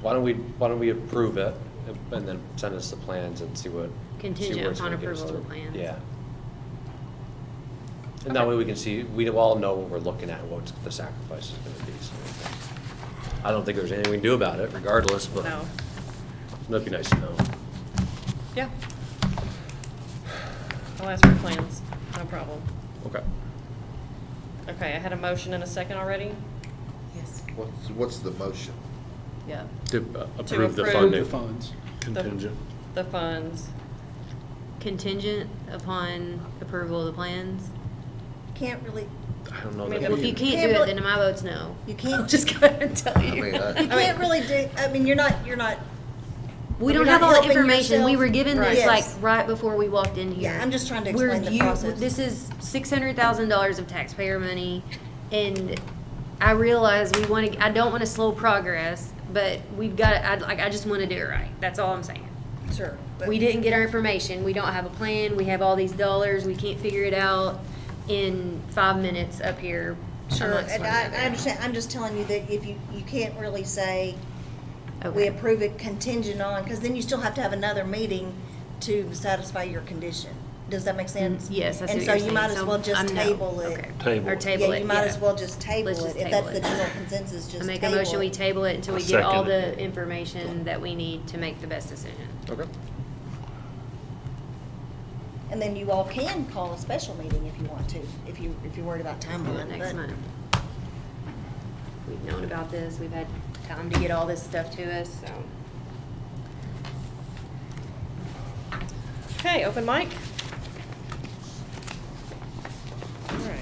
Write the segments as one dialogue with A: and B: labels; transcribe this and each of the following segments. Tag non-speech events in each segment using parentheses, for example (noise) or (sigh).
A: Why don't we, why don't we approve it and then send us the plans and see what. see where
B: Contingent
A: it's gonna
B: upon
A: get us
B: approval of
A: to.
B: the plans.
A: Yeah. And that way we can see, we all know what we're looking at, what the sacrifice is gonna be. so. I don't think there's anything we can do about it regardless, but
C: No.
A: it'd be nice to know.
C: Yeah. I'll ask for plans, no problem.
A: Okay.
C: Okay, I had a motion and a second already?
B: Yes.
D: What's, what's the motion?
C: Yeah.
A: To uh, approve the
C: approve.
A: funding.
C: The
E: funds.
C: Contingent. The funds.
B: Contingent upon approval of the plans?
F: Can't really,
A: I don't know.
C: I mean,
A: that
B: Well, if
A: we-
B: you
F: Yeah,
B: can't do
F: but-
B: it, then my vote's no.
C: (laughs)
F: you can't,
C: Just
F: (laughs)
C: gonna tell
D: I
C: you.
D: mean, I-
F: you can't really do, I mean, you're not, you're not,
B: We don't
F: You're
B: have
F: not
B: all the
F: helping
B: information. We
F: yourself.
B: were given this
F: Right.
B: like
F: Yes.
B: right before we walked in here.
F: Yeah, I'm just trying to
B: We're
F: explain the
B: you-
F: process.
B: This is six hundred thousand dollars of taxpayer money and I realize we want to, I don't want to slow progress, but we've got, I, like, I just want to do it right. That's all I'm saying.
F: sure. but-
B: We didn't get our information. We don't have a plan. We have all these dollars. We can't figure it out in five minutes up here.
F: Sure,
B: amongst
F: and
B: one
F: I,
B: another.
F: I understand, I'm just telling you that if you, you can't really say, we
B: Okay.
F: approve it contingent on, because then you still have to have another meeting to satisfy your condition. Does that make sense?
B: Mm, Yes, I see
F: And
B: what you're
F: so
B: saying.
F: you might as well just
B: I'm no.
F: table it.
B: Okay.
A: Table
B: Or
A: it.
B: table it,
F: Yeah, you might as well just table
B: Let's
F: it.
B: just
F: If
B: table
F: that's the
B: it.
F: general consensus, just
B: I
F: table
B: make a motion, we
F: it.
B: table it until we
A: I
B: get all
A: second it.
B: the information that we need to make the best decision.
A: Okay.
F: And then you all can call a special meeting if you want to, if you, if you're worried about
B: Do it
F: timeline.
B: next
F: but-
B: month. We've known about this, we've had time to get all this stuff to us, so.
C: Okay, open mic. All right.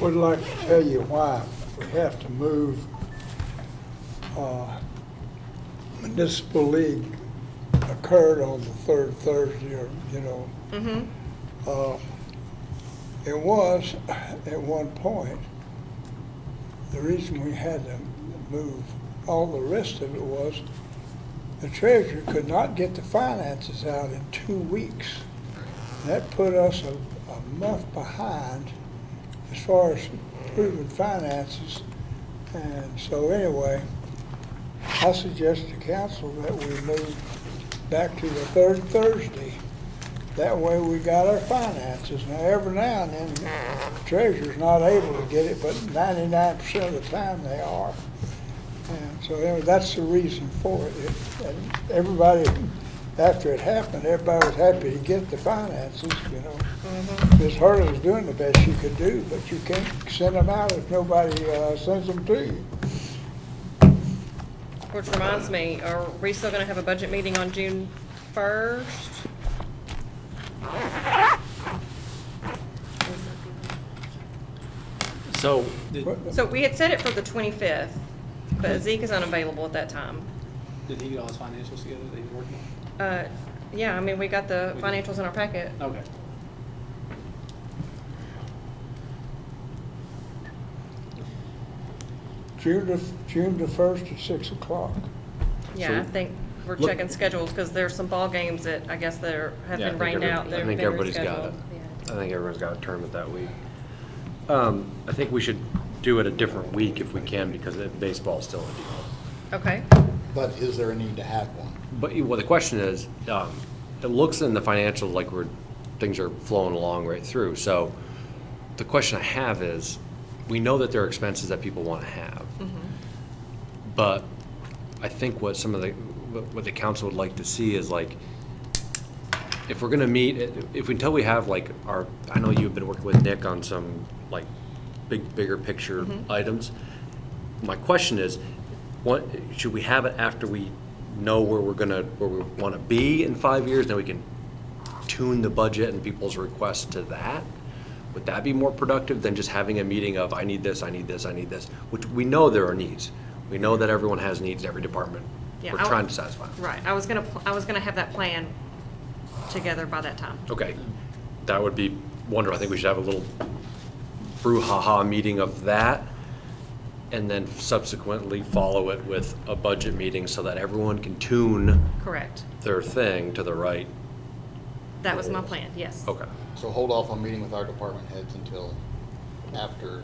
G: Would like to tell you why we have to move uh, municipal league occurred on the third Thursday, or, you know.
C: Mm-hmm.
G: Uh, It was, at one point, the reason we had to move all the rest of it was the treasurer could not get the finances out in two weeks. That put us a, a month behind as far as approving finances. And so anyway, I suggest to council that we move back to the third Thursday. That way we got our finances. Now, every now and then treasurer's not able to get it, but ninety-nine percent of the time they are. And so anyway, that's the reason for it. It- And everybody, after it happened, everybody was happy to get the finances, you know. Ms. Hurley was doing the best she could do, but you can't send them out if nobody uh, sends them to you.
C: Which reminds me, are we still gonna have a budget meeting on June first?
A: So,
E: Did,
G: What-
C: So we had set it for the twenty-fifth, but Zeke is unavailable at that time.
E: did he get all his financials together that he's working
C: Uh, yeah, I mean, we got the financials in our packet.
E: on? Okay.
G: June the, June the first at six o'clock.
C: Yeah, I
A: So-
C: think we're
A: Look-
C: checking schedules, cause there's some ball games that I guess that are, have
A: Yeah, I
C: been
A: think
C: rained
A: every-
C: out, that
A: I
C: have
A: think
C: been
A: everybody's got it.
C: rescheduled.
A: I think everyone's got a tournament that week. Um, I think we should do it a different week if we can, because it- baseball's still a deal.
C: Okay,
H: But is there a need to have one?
A: But, you- well, the question is, um, it looks in the financials like we're, things are flowing along right through. So the question I have is, we know that there are expenses that people want to have. But I think what some of the, what what the council would like to see is like, if we're gonna meet, if until we have like our, I know you've been working with Nick on some like big, bigger picture items. My question is, what, should we have it after we know where we're gonna, where we wanna be in five years? Then we can tune the budget and people's requests to that? Would that be more productive than just having a meeting of, I need this, I need this, I need this? Which, we know there are needs. We know that everyone has needs, every department.
C: Yeah,
A: We're
C: I-
A: trying to satisfy them.
C: right, I was gonna, pl- I was gonna have that plan together by that time.
A: Okay, that would be wonderful. I think we should have a little brouhaha meeting of that, and then subsequently follow it with a budget meeting so that everyone can tune
C: Correct,
A: their thing to the right.
C: that was my plan, yes.
A: Okay,
H: So hold off on meeting with our department heads until after